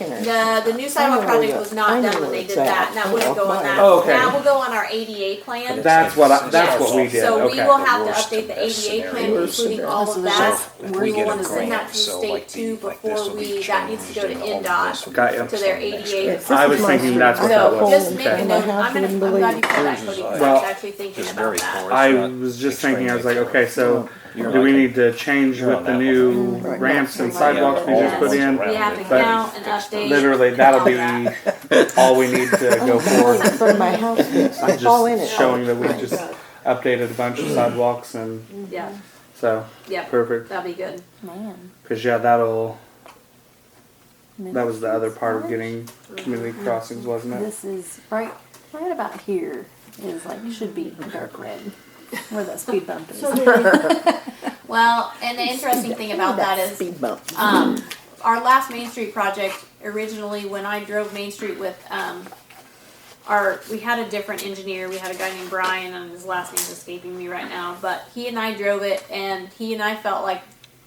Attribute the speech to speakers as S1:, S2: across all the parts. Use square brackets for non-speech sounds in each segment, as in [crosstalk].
S1: looking at.
S2: The, the new sidewalk
S1: know
S2: project
S1: where
S2: was
S1: it-
S2: not
S1: I know
S2: done when
S1: where
S2: they
S1: it's
S2: did that.
S1: at.
S2: Now we'll
S1: Oh,
S2: go on
S1: fine.
S2: that.
S3: Oh, okay.
S2: Now we'll go on our ADA plan.
S3: That's what I, that's what we
S2: Yes.
S3: did,
S2: So we
S3: okay.
S2: will have to
S4: worst
S2: update the
S4: case
S2: ADA plan,
S4: scenario.
S2: including all
S1: So
S2: of that.
S4: if we
S2: We will
S4: get a
S2: wanna send that
S4: grant,
S2: to
S4: so
S2: state
S4: like
S2: two
S4: the- like this
S2: before
S4: will be
S2: we, that needs to go to
S4: changed and all
S2: NDOT
S4: this will be
S3: Got ya.
S2: to their
S4: next
S2: ADA.
S4: year.
S1: This
S3: I
S1: is
S3: was
S1: my
S3: thinking
S1: street.
S3: that's what that
S2: So
S1: I
S3: was.
S2: just
S1: got
S2: make a
S1: home, and
S2: note,
S1: I
S2: I'm gonna, I'm
S1: couldn't
S2: glad
S1: believe
S2: you called that,
S4: Yours
S2: Cody,
S4: is
S2: 'cause
S4: like-
S2: I was
S3: Well,
S2: actually thinking
S4: it's
S2: about
S4: very
S2: that.
S4: porous.
S3: I
S4: not
S3: was just
S4: extremely
S3: thinking, I was like,
S4: clear.
S3: okay, so
S4: You're
S3: do we
S4: like a-
S3: need to change
S4: you're
S3: with
S4: on
S3: the
S4: that
S3: new
S4: level.
S3: ramps and
S2: Yeah,
S3: sidewalks we
S2: all
S3: just
S2: the
S3: put
S2: ones
S3: in?
S2: We
S4: around
S2: have
S4: it,
S2: to
S3: but
S2: count and update.
S3: Literally,
S2: and
S3: that'll
S2: all
S3: be
S2: that.
S3: all we need to
S4: [laughs]
S3: go for.
S1: From my house, fence. I
S3: I'm
S1: fall in it.
S3: just showing that we just updated a bunch of sidewalks and
S2: Yeah,
S3: so,
S2: yeah,
S3: perfect.
S2: that'll be good.
S5: Man.
S3: Cause yeah, that'll, that was the other part of getting community crossings, wasn't it?
S5: This is right, right about here is like, should be dark red, where that speed bump is.
S2: Well, and the interesting thing about that is,
S1: Speed bump.
S2: um, our last Main Street project, originally when I drove Main Street with, um, our, we had a different engineer, we had a guy named Brian, and his last name's escaping me right now, but he and I drove it, and he and I felt like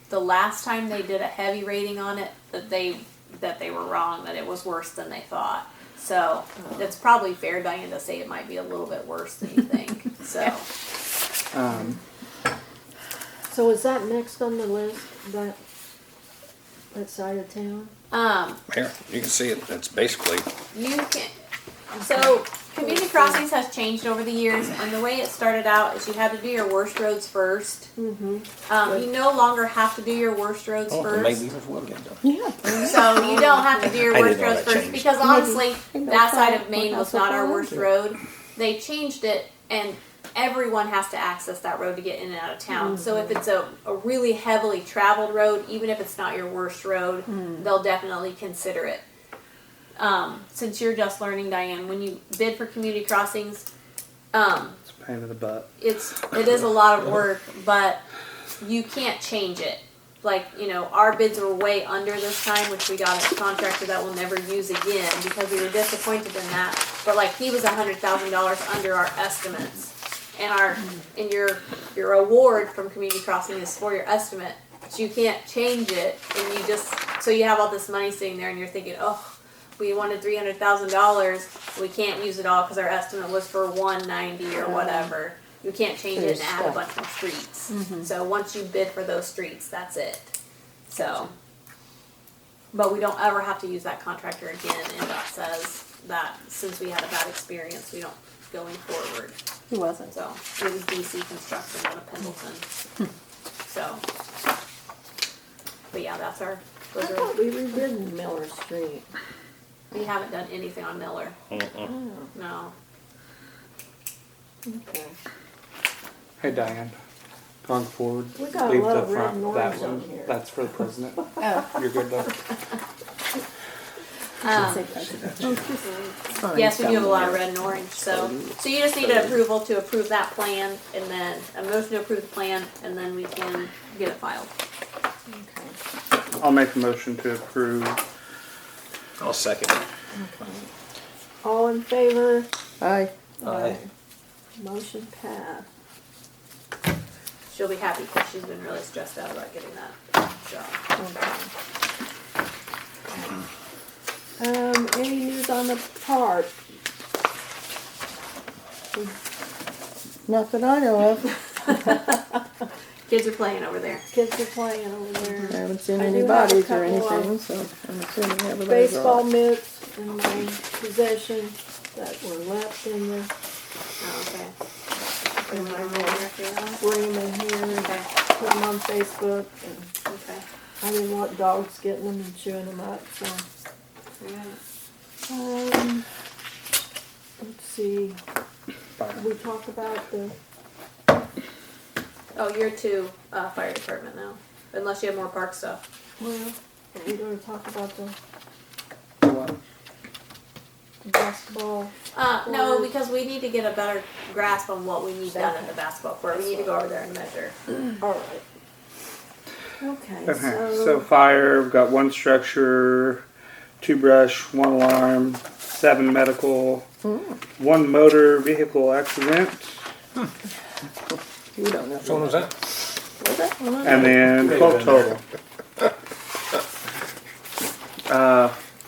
S2: the last time they did a heavy rating on it, that they, that they were wrong, that it was worse than they thought. So, it's probably fair, Diane, to say it might be a little bit worse than you think, so.
S3: Um,
S6: So is that next on the list, that, that side of town?
S2: Um,
S4: Here, you can see it, it's basically,
S2: You can, so community crossings has changed over the years, and the way it started out is you had to do your worst roads first.
S6: Mm-hmm.
S2: Um, you no longer have to do your worst roads
S4: oh, maybe
S2: first,
S4: it will get done.
S1: Yeah.
S2: [laughs] so you don't have to do your
S4: I
S2: worst
S4: didn't know
S2: roads
S4: that
S2: first,
S4: changed.
S2: because honestly,
S1: Maybe.
S2: that side of Maine was
S1: That's what
S2: not our
S1: I
S2: worst
S1: did.
S2: road. They changed it, and everyone has to access that road to get in and out of town. So if it's a, a really heavily traveled road, even if it's not your worst road, they'll definitely consider it. Um, since you're just learning, Diane, when you bid for community crossings, um,
S3: it's a pain in the butt.
S2: it's it is a lot of work, but you can't change it. Like you know, our bids were way under this time, which we got a contractor that we'll never use again because we were disappointed in that. But like he was a hundred thousand dollars under our estimates, and our and your your award from Community Crossing is for your estimate. So you can't change it, and you just so you have all this money sitting there, and you're thinking, oh, we wanted three hundred thousand dollars. We can't use it all because our estimate was for one ninety
S6: Uh-huh.
S2: or whatever. You can't change it and add a bunch more streets.
S6: Mm-hmm.
S2: So once you bid for those streets, that's it. So, but we don't ever have to use that contractor again. And that says that since we had a bad experience, we don't going forward.
S5: [laughs] He wasn't.
S2: So it was DC Construction out of Pendleton.
S6: Hmm.
S2: So, but yeah, that's our.
S6: I
S2: Those are,
S6: thought we redid Miller Street.
S2: we haven't done anything on Miller.
S6: Oh,
S2: No.
S6: okay.
S3: Hey Diane, going forward,
S6: We got a
S3: leave
S6: lot
S3: the
S6: of red
S3: front, that
S6: norms on
S3: one,
S6: here.
S3: that's for the
S6: [laughs]
S3: president.
S5: Oh.
S3: You're good though.
S2: Um, Yes, we do have a lot of red and orange, so, Oh, so you just need an approval to approve that plan, and then, a motion to approve the plan, and then we can get it filed.
S6: Okay.
S3: I'll make a motion to approve.
S4: I'll second it.
S6: All in favor?
S1: Aye.
S4: Aye.
S6: Motion passed.
S2: She'll be happy, because she's been really stressed out about getting that job.
S6: Okay. Um, any news on the park?
S1: Not that I know of.
S2: Kids are playing over there.
S6: Kids are playing over there.
S1: I haven't seen
S6: I do
S1: any
S6: have a
S1: bodies or
S6: couple of
S1: anything, so I'm assuming everybody's all
S6: baseball mitts in my possession that were left in the
S2: Oh, okay.
S6: in
S2: Put it
S6: my
S2: over
S6: room.
S2: there for you now.
S6: room in here and
S2: Okay,
S6: put them on Facebook. And
S2: okay.
S6: I didn't want dogs getting them and chewing them up, so.
S2: Alright.
S6: Um, let's see,
S3: Byron.
S6: we talked about the,
S2: Oh, you're to, uh, fire department now, unless you have more park stuff.
S6: well, we gonna talk about the
S3: What?
S6: basketball.
S2: Uh, no,
S6: Or-
S2: because we need to get a better grasp on what we need done in the basketball court, we need to go over there and measure.
S6: All right. Okay,
S3: Okay, so
S6: so,
S3: fire, we've got one structure, two brush, one alarm, seven medical, one motor vehicle accident,
S1: You don't know.
S4: Which one was that?
S3: and then twelve total. Uh,